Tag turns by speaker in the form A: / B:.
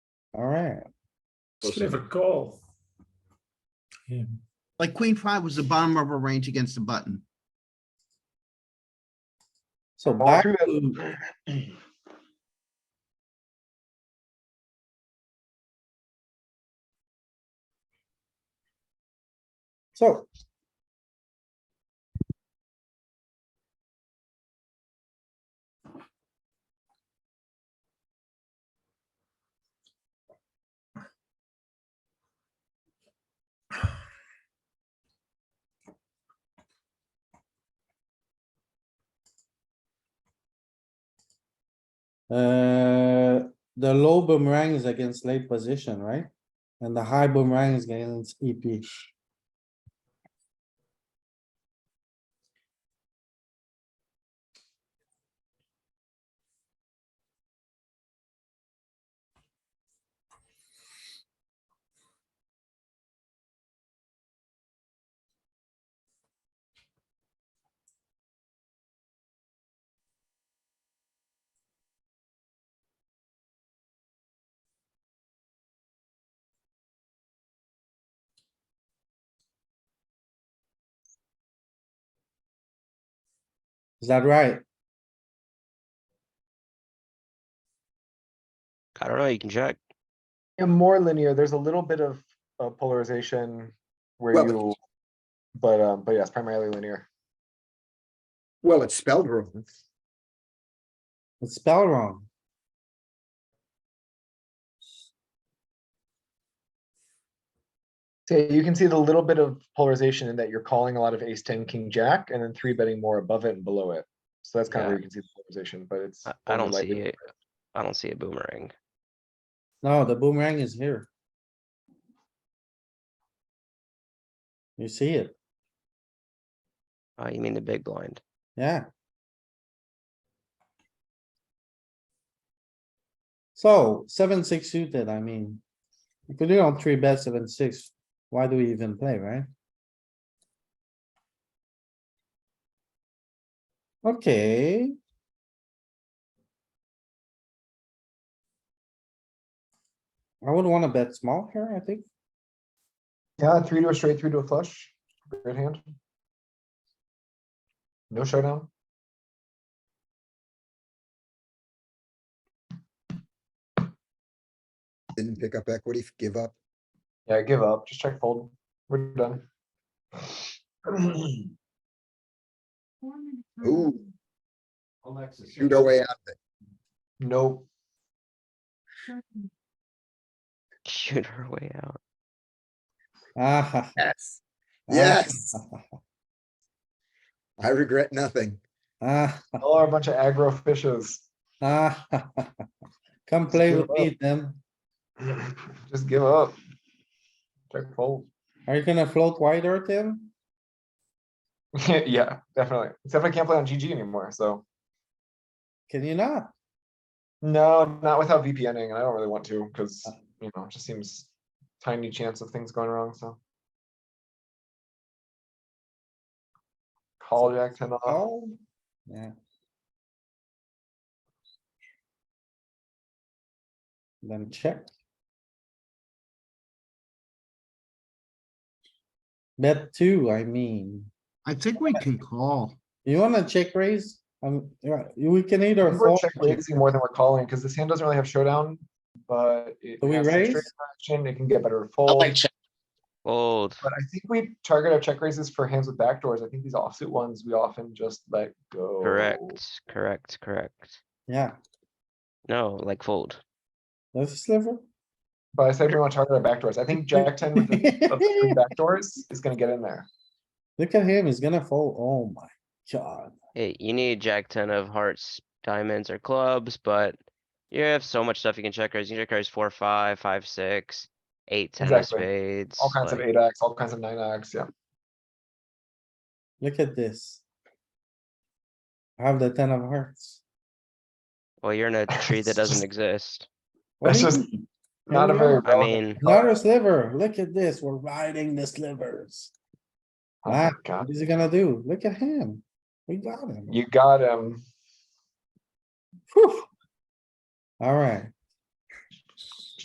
A: Alright,
B: Should have a call. Yeah,
C: Like queen five was the bottom of our range against the button.
A: so
D: All
A: back
D: three of
A: to, so. Uh, the low boomerang is against late position, right? And the high boomerang is against E EP. Is that right?
E: I don't know, you can check.
D: Yeah, more linear. There's a little bit of uh, polarization where
F: Well,
D: you, but um, but yes, primarily linear.
F: Well, it's spelled wrong.
A: It's spelled wrong.
D: So you can see the little bit of polarization in that you're calling a lot of ace ten, king jack, and then three betting more above it and below it. So that's kind of
E: Yeah.
D: where you can see the polarization, but it's.
E: I, I
D: only
E: don't
D: lightly
E: see it.
D: polarized.
E: I don't see a boomerang.
A: No, the boomerang is here. You see it?
E: Oh, you mean the big blind?
A: Yeah. So seven, six suited, I mean. If we do on three bet seven, six, why do we even play, right? Okay. I would wanna bet small here, I think.
D: Yeah, three to a straight, three to a flush, great hand. No showdown.
F: Didn't pick up equity, give up.
D: Yeah, give up. Just check fold. We're done.
F: Ooh, shoot our way out.
D: Nope.
E: Shoot her way out.
A: Ah, ha, ha,
F: Yes.
A: ah,
F: Yes,
A: ha, ha,
F: I regret nothing.
A: ah, ha,
D: All are a bunch of aggro fishes.
A: ah, ha, ha, ha. Come play
D: give
A: with me then.
D: Just give up. Check fold.
A: Are you gonna float wider, Tim?
D: yeah, definitely. Except I can't play on GG anymore. So
A: Can you not?
D: no, not without VPNing, and I don't really want to because you know it just seems tiny chance of things going wrong. So call Jack ten off.
A: Oh, yeah. Then check. Bet two, I mean,
C: I think we can call.
A: you wanna check raise? Um, yeah, we can either.
D: I think We're
A: fold
D: check
A: or check.
D: raising more than we're calling because this hand doesn't really have showdown, but it
A: Do we
D: has some
A: raise?
D: straight action. It can get better fold.
E: Fold.
D: But I think we target our check raises for hands with backdoors. I think these offsuit ones, we often just let go.
E: Correct, correct, correct.
A: Yeah,
E: No, like fold.
A: that's a sliver.
D: But I said we want to target our backdoors. I think jack ten with the of the three backdoors is gonna get in there.
A: Look at him, he's gonna fold. Oh my god.
E: Hey, you need jack ten of hearts, diamonds, or clubs, but you have so much stuff you can check raise. You can check raise four, five, five, six, eight, ten of
D: Exactly.
E: spades.
D: All kinds of
E: like-
D: eight X, all kinds of nine X, yeah.
A: Look at this. I have the ten of hearts.
E: Well, you're in a tree that
D: It's
E: doesn't
D: just-
E: exist.
A: What
D: That's
A: do you
D: just
A: mean?
D: Not a very.
E: I
D: relevant
E: mean,
A: Not a sliver. Look at this. We're riding the slivers.
D: Oh my
A: Ah.
D: God.
A: What is he gonna do? Look at him. We got him.
D: You got him.
A: Alright,